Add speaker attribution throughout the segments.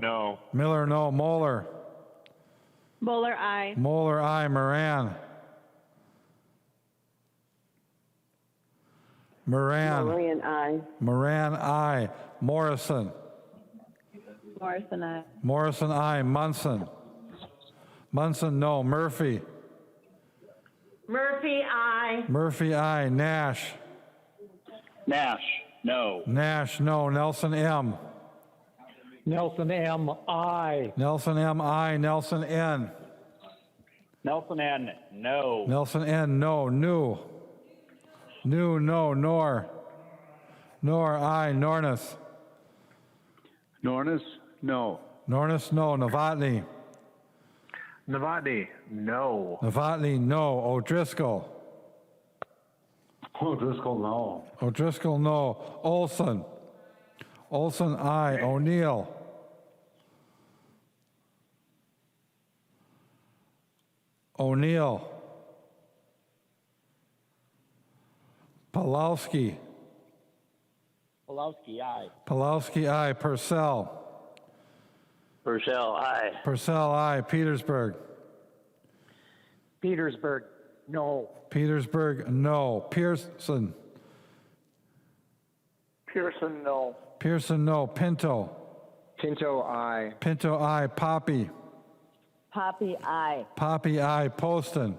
Speaker 1: No.
Speaker 2: Miller, no. Moeller.
Speaker 3: Bowler, aye.
Speaker 2: Moeller, aye. Moran. Moran.
Speaker 4: Moran, aye.
Speaker 2: Moran, aye. Morrison.
Speaker 3: Morrison, aye.
Speaker 2: Morrison, aye. Munson. Munson, no. Murphy.
Speaker 5: Murphy, I.
Speaker 2: Murphy, aye. Nash.
Speaker 1: Nash, no.
Speaker 2: Nash, no. Nelson, M.
Speaker 6: Nelson M. I.
Speaker 2: Nelson, M, aye. Nelson, N.
Speaker 1: Nelson N, no.
Speaker 2: Nelson N, no. New. New, no. Nor. Nor, aye. Nornis.
Speaker 7: Nornis, no.
Speaker 2: Nornis, no. Novotny.
Speaker 1: Novotny, no.
Speaker 2: Novotny, no. O'Driscoll.
Speaker 7: O'Driscoll, no.
Speaker 2: O'Driscoll, no. Olson. Olson, aye. O'Neill. O'Neill. Palowski.
Speaker 6: Pulowski, I.
Speaker 2: Palowski, aye. Purcell.
Speaker 8: Purcell, aye.
Speaker 2: Purcell, aye. Petersburg.
Speaker 6: Petersburg, no.
Speaker 2: Petersburg, no. Pearson.
Speaker 8: Pearson, no.
Speaker 2: Pearson, no. Pinto.
Speaker 6: Pinto, I.
Speaker 2: Pinto, aye. Poppy.
Speaker 4: Poppy, aye.
Speaker 2: Poppy, aye. Poston.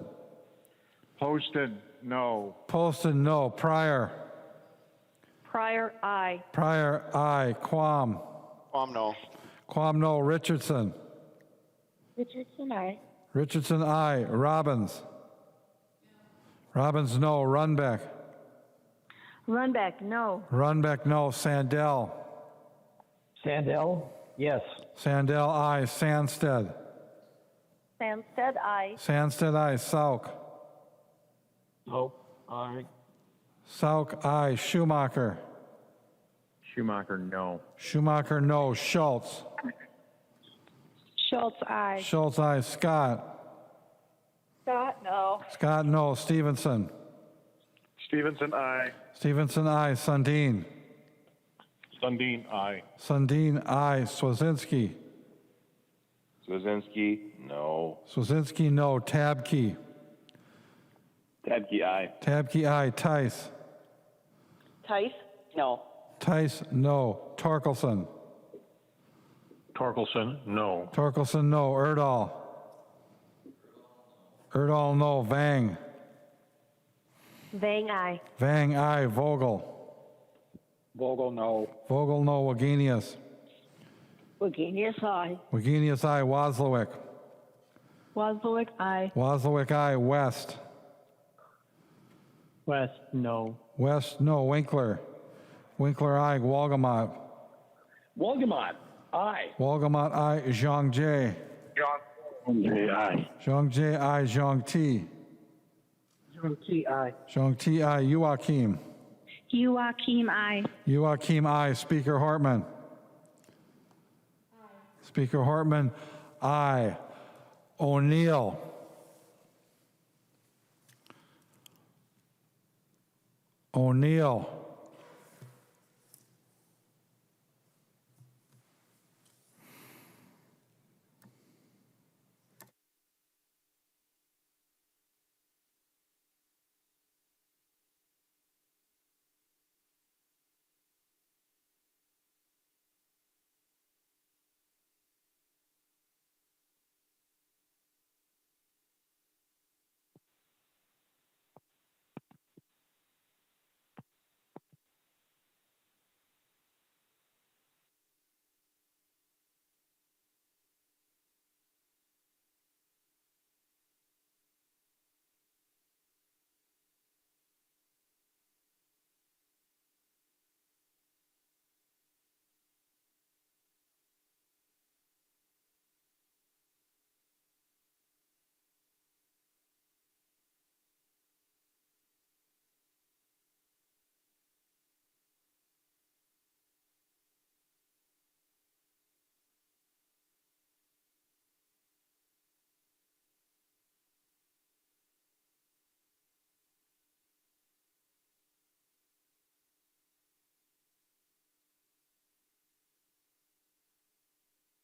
Speaker 1: Poston, no.
Speaker 2: Poston, no. Pryor.
Speaker 3: Pryor, aye.
Speaker 2: Pryor, aye. Quam.
Speaker 8: Quam, no.
Speaker 2: Quam, no. Richardson.
Speaker 5: Richardson, I.
Speaker 2: Richardson, aye. Robbins. Robbins, no. Runbeck.
Speaker 3: Runback, no.
Speaker 2: Runbeck, no. Sandell.
Speaker 6: Sandell, yes.
Speaker 2: Sandell, aye. Sandsted.
Speaker 3: Sandsted, aye.
Speaker 2: Sandsted, aye. Sauk.
Speaker 6: Hope, I.
Speaker 2: Sauk, aye. Schumacher.
Speaker 1: Schumacher, no.
Speaker 2: Schumacher, no. Schultz.
Speaker 3: Schultz, aye.
Speaker 2: Schultz, aye. Scott.
Speaker 3: Scott, no.
Speaker 2: Scott, no. Stevenson.
Speaker 1: Stevenson, I.
Speaker 2: Stevenson, aye. Sundin.
Speaker 1: Sundin, I.
Speaker 2: Sundin, aye. Swazinski.
Speaker 8: Swazinski, no.
Speaker 2: Swazinski, no. Tabke.
Speaker 8: Tabke, aye.
Speaker 2: Tabke, aye. Tice.
Speaker 4: Tice, no.
Speaker 2: Tice, no. Torkelson.
Speaker 1: Torkelson, no.
Speaker 2: Torkelson, no. Erdahl. Erdahl, no. Vang.
Speaker 3: Vang, aye.
Speaker 2: Vang, aye. Vogel.
Speaker 6: Vogel, no.
Speaker 2: Vogel, no. Wagenius.
Speaker 4: Wagenius, aye.
Speaker 2: Wagenius, aye. Wozlowick.
Speaker 3: Wozlowick, aye.
Speaker 2: Wozlowick, aye. West.
Speaker 6: West, no.
Speaker 2: West, no. Winkler. Winkler, aye. Walgamot.
Speaker 6: Wolgamott, I.
Speaker 2: Walgamot, aye. Zhang Jie.
Speaker 8: aye.
Speaker 2: Zhang Jie, aye. Zhang Ti.
Speaker 6: T, I.
Speaker 2: Zhang Ti, aye. Joachim.
Speaker 3: Joachim, aye.
Speaker 2: Joachim, aye. Speaker Hartman. Speaker Hartman, aye. O'Neill. O'Neill.